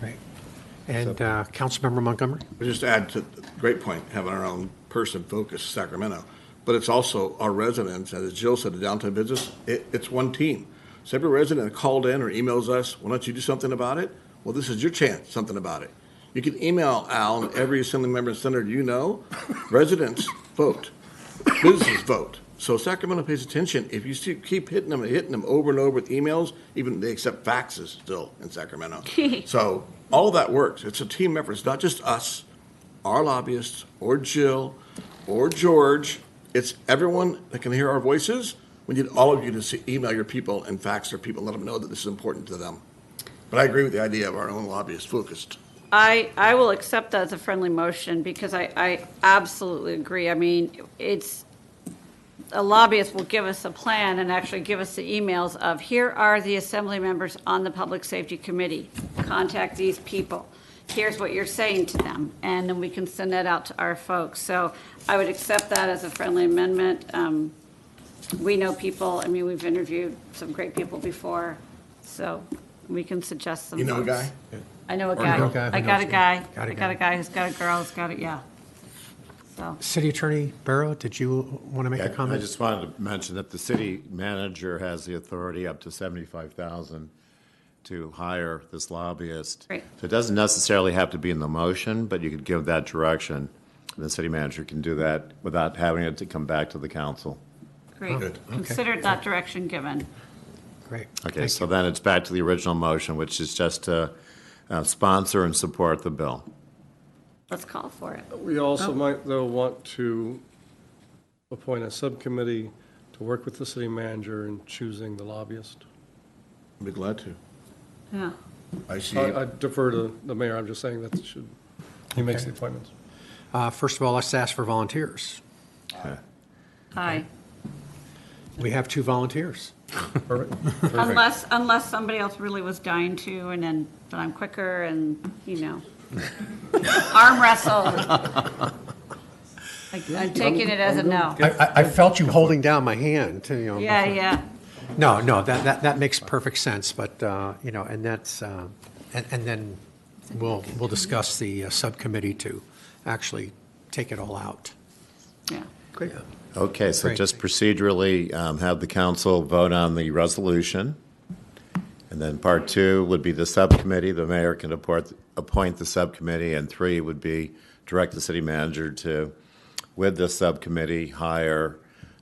Right. And uh, Councilmember Montgomery? Just to add to, great point, having our own person focused Sacramento, but it's also our residents, and as Jill said, the downtown business, it, it's one team. So every resident called in or emails us, why don't you do something about it? Well, this is your chance, something about it. You can email Al and every assembly member and senator you know, residents vote, businesses vote. So Sacramento pays attention, if you see, keep hitting them and hitting them over and over with emails, even they accept faxes still in Sacramento. So all that works, it's a team effort, it's not just us our lobbyists, or Jill, or George. It's everyone that can hear our voices. We need all of you to see, email your people and fax their people, let them know that this is important to them. But I agree with the idea of our own lobbyists focused. I, I will accept that as a friendly motion because I, I absolutely agree. I mean, it's, a lobbyist will give us a plan and actually give us the emails of, here are the assembly members on the Public Safety Committee. Contact these people. Here's what you're saying to them. And then we can send that out to our folks. So I would accept that as a friendly amendment. Um, We know people, I mean, we've interviewed some great people before, so we can suggest some. You know a folks. guy? I know a know a guy guy. who I got knows a you. guy. Got a I got guy. a guy who's got a girl who's got it, yeah. So, City Attorney Barrow, did you want to make a Yeah, I comment? just wanted to mention that the city manager has the authority up to seventy-five thousand to hire this lobbyist. Right. So it doesn't necessarily have to be in the motion, but you could give that direction. And the city manager can do that without having it to come back to the council. great. Good. Considered that direction given. Great. Okay, Thank so you. then it's back to the original motion, which is just to uh, sponsor and support the bill. Let's call for it. We also might, though, want to appoint a subcommittee to work with the city manager in choosing the lobbyist. I'd be glad to. Yeah. I see. I I defer to the mayor, I'm just saying that should, he makes the appointments. Uh, First of all, let's ask for volunteers. Aye. We have two volunteers. Perfect. Um, Unless, unless somebody else really was dying to and then, but I'm quicker and, you know. Arm wrestle. Like, I'm taking it as a no. I- I I felt you holding down my hand, you know. Yeah, yeah. No, no, that, that, that makes perfect sense, but, uh, you know, and that's, uh, and, and then we'll, we'll discuss the uh, subcommittee to actually take it all out. Yeah. Great. Okay, so Great. just procedurally, um, have the council vote on the resolution. And then part two would be the subcommittee, the mayor can appoint, appoint the subcommittee. And three would be direct the city manager to, with the subcommittee, hire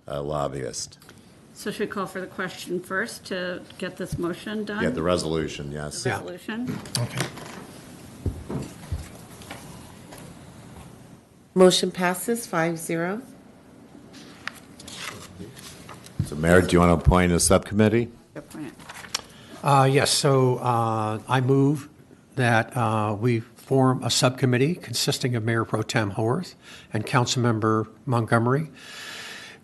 a lobbyist. So should we call for the question first to get this motion done? Yeah, the resolution, yes. Yeah. Resolution? Okay. Motion passes five zero. So Mayor, do you want to appoint a subcommittee? Appoint. Uh, Yes, so uh, I move that uh, we form a subcommittee consisting of Mayor Pro Tem Haworth and Councilmember Montgomery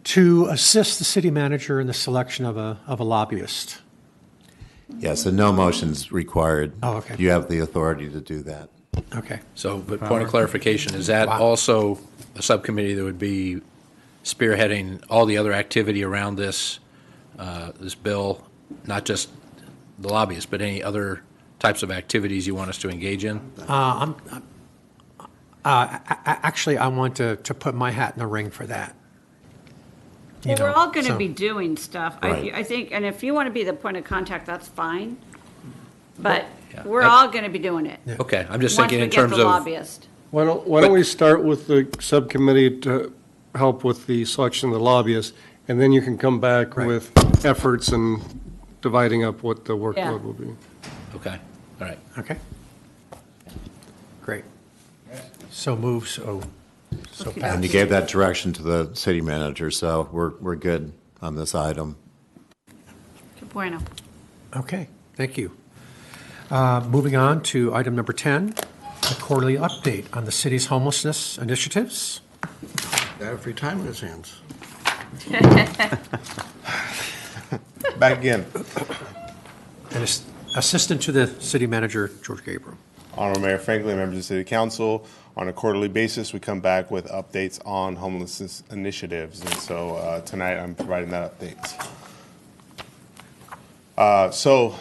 to assist the city manager in the selection of a, of a lobbyist. Yes, and no motion's required. Oh, okay. You have the authority to do that. Okay. So, but point of clarification, is that also a subcommittee that would be spearheading all the other activity around this, uh, this bill? Not just the lobbyists, but any other types of activities you want us to engage in? A- Actually, I want to, to put my hat in the ring for that. You Well, we're know, all going to so- be doing stuff. I, Right. I think, and if you want to be the point of contact, that's fine. But Yeah. we're all going to be doing it. Okay, I'm just Once thinking we in get terms the of. lobbyist. Why don't, why don't we start with the subcommittee to help with the selection of the lobbyists, and then you can come back Right. with efforts and dividing up what the workload will be. Okay, all right. Okay. Great. So move, so, so Okey-doke. And you pass. gave that direction to the city manager, so we're, we're good on this item. Que bueno. Okay, thank you. Uh, Moving on to item number 10, a quarterly update on the city's homelessness initiatives. They have free time on his hands. Back again. And ass- Assistant to the City Manager, George Gabriel. Honorable Mayor Franklin, members of the City Council, on a quarterly basis, we come back with updates on homelessness initiatives. And so uh, tonight, I'm providing that update. Uh, So